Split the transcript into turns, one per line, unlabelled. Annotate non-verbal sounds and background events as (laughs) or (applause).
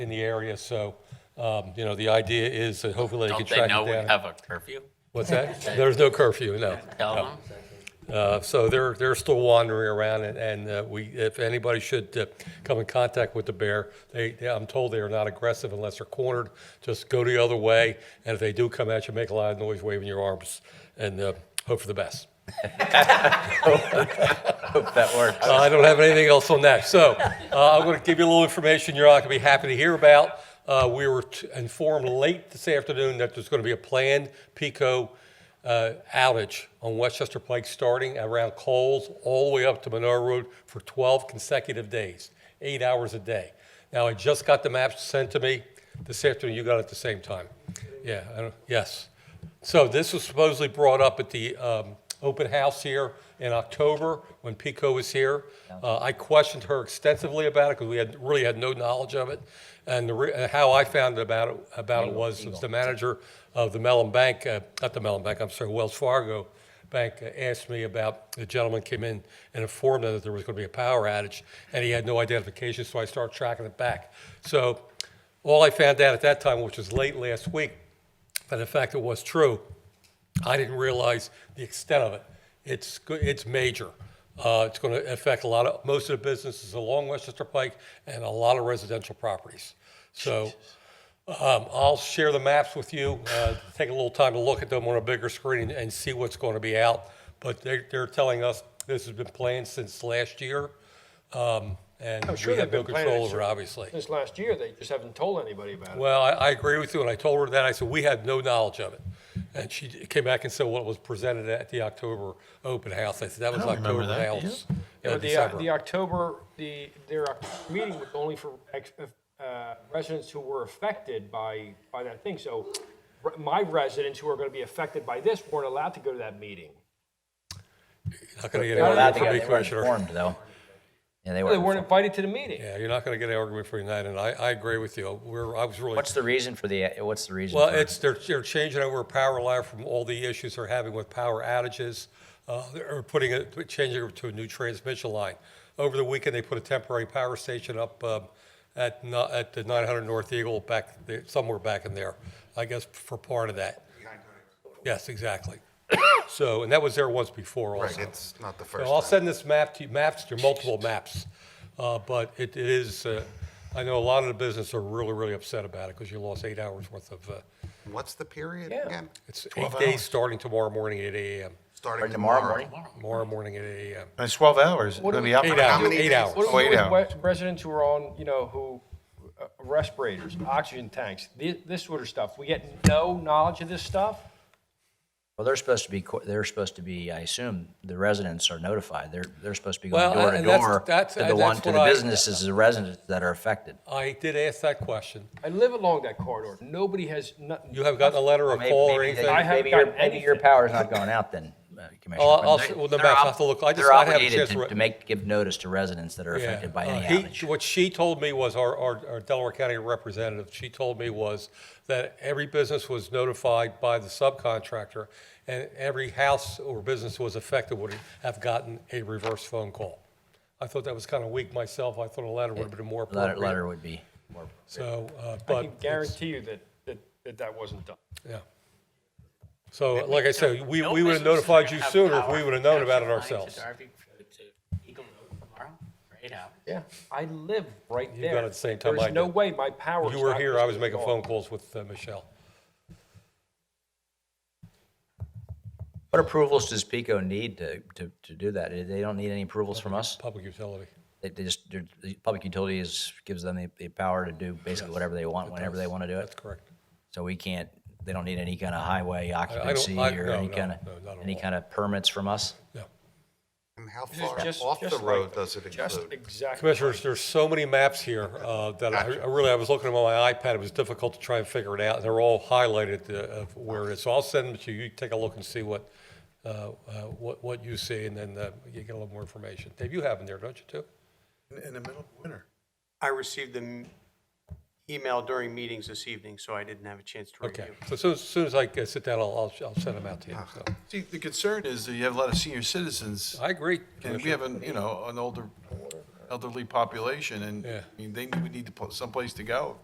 in the area, so, um, you know, the idea is that hopefully they can
Don't they
track
know we
it down.
have a curfew?
What's that?
(laughs)
There's no curfew, no.
Tell them.
Uh, So they're, they're still wandering around, and- and uh, we, if anybody should uh, come in contact with the bear, they, they- I'm told they are not aggressive unless they're cornered, just go the other way, and if they do come at you, make a lot of noise waving your arms, and uh, hope for the best.
That works.
Uh, I don't have anything else on that. So uh, I'm going to give you a little information you're not going to be happy to hear about. Uh, We were t- informed late this afternoon that there's going to be a planned PICO uh, outage on Westchester Pike, starting around Coles all the way up to Monroe Road for 12 consecutive days, eight hours a day. Now, I just got the maps sent to me this afternoon. You got it at the same time. Yeah, I don't- yes. So this was supposedly brought up at the um, open house here in October when Pico was here. Uh, I questioned her extensively about it because we had, really had no knowledge of it. And the re- uh, how I found about it, about it was, was the manager of the Mellon Bank, uh, not the Mellon Bank, I'm sorry, Wells Fargo Bank uh, asked me about, the gentleman came in and informed them that there was going to be a power outage and he had no identification, so I started tracking it back. So all I found out at that time, which was late last week, and in fact, it was true. I didn't realize the extent of it. It's, go- it's major. Uh, It's going to affect a lot of, most of the businesses along Westchester Pike and a lot of residential properties. So um, I'll share the maps with you, uh, take a little time to look at them on a bigger screen and- and see what's going to be out. But they're, they're telling us this has been planned since last year, um, and
I'm
we
sure
have
they've
no
been
control
planning
over it, obviously.
This last year, they just haven't told anybody about it.
Well, I, I agree with you, and I told her that, I said, we had no knowledge of it. And she came back and said, well, it was presented at the October open house, I said, that was October house. uh,
But the, uh,
December.
the October, the, their Oc- meeting was only for ex- uh, residents who were affected by, by that thing. So re- my residents who are going to be affected by this weren't allowed to go to that meeting.
Not gonna get
They're
an argument from
allowed to go.
me,
They weren't
Commissioner.
informed, though. Yeah, they
They
weren't.
weren't
informed.
invited to the meeting.
Yeah, you're not gonna get an argument from me tonight, and I, I agree with you, we're, I was really.
What's the reason for the, what's the reason?
Well,
for-
it's, they're, they're changing over power line from all the issues they're having with power outages. Uh, they're putting it, changing it to a new transmission line. Over the weekend, they put a temporary power station up, um, at, no- at the nine hundred North Eagle back, there- somewhere back in there, I guess for part of that. Yes, exactly. So, and that was there once before also.
Right, it's not the
So
first
I'll
time.
send this map to you, maps, to multiple maps, Uh, but it it is, uh, I know a lot of the business are really, really upset about it because you lost eight hours worth of, uh,
What's the period
Yeah.
again?
it's eight
12
days
hours.
starting tomorrow morning at 8 AM,
Starting
Or tomorrow
tomorrow.
morning?
tomorrow morning at 8 AM.
It's 12 hours.
What do
It'll
we-
be up
Eight
and
hours,
many
eight
days?
hours.
What do we do
Wait
with
out.
wet- residents who are on, you know, who, uh, respirators, oxygen tanks, thi- this sort of stuff? We get no knowledge of this stuff?
Well, they're supposed to be, co- they're supposed to be, I assume, the residents are notified. They're, they're supposed to be going
Well,
door to
and that's-
door
that's-
to the
that's
one, to
what
the
I-
businesses, the residents that are affected.
I did ask that question.
I live along that corridor. Nobody has, nothing.
You haven't gotten a letter or
Maybe-
call or
maybe they-
anything?
I haven't
maybe your-
gotten
Maybe your
anything.
power's not going out then, uh, Commissioner.
I'll- I'll
But
s-
they-
well, the
they're
maps, I'll
ob-
have to look. I just-
They're
I haven't had a
obligated
chance
to-
to re-
to make, give notice to residents that are affected by
uh,
any
he-
outage.
What she told me was, our, our our Delaware County representative, she told me was that every business was notified by the subcontractor, and every house or business was affected would have gotten a reverse phone call. I thought that was kind of weak myself. I thought a letter would have been more
Letter,
appropriate.
letter would be.
So, uh,
I
but,
can guarantee you that, that, that that wasn't done.
yeah. So, like I said, we,
No
we would have
business is gonna
notified you
have
sooner if
power
we would have known about it
connection line
ourselves.
to Darby, to Eagle Road tomorrow for eight hours.
Yeah, I live right there.
You got it the same time I
There's no
did.
way my power.
You were here, I was making phone calls with uh, Michelle.
What approvals does PICO need to, to, to do that? They don't need any approvals from us?
Public utility.
They, they just, they're- the public utilities gives them the, the power to do basically whatever they want, whenever they want to do
That's
it.
correct.
So we can't, they don't need any kind of highway occupancy
I-
or
no,
any
no,
kind of,
no, not at
any
all.
kind of permits from us?
Yeah.
And how far
just-
off
just
the
like
road
that.
does it
Just
include?
exactly.
Commissioners, there's so many maps here uh, that I I really, I was looking at 'em on my iPad, it was difficult to try and figure it out, and they're all highlighted uh, of where it is. So I'll send them to you, you take a look and see what, uh, uh, what what you see, and then uh, you get a little more information. Dave, you have them there, don't you, too?
In- In the middle of winter.
I received the email during meetings this evening, so I didn't have a chance to
Okay,
review.
so as soon- as soon as I uh, sit down, I'll, I'll I'll send them out to you.
Ah.
So,
See, the concern is that you have a lot of senior citizens,
I agree.
and we
Commissioner.
have an, you know, an older elderly population, and,
Yeah.
I mean, they would need to put someplace to go.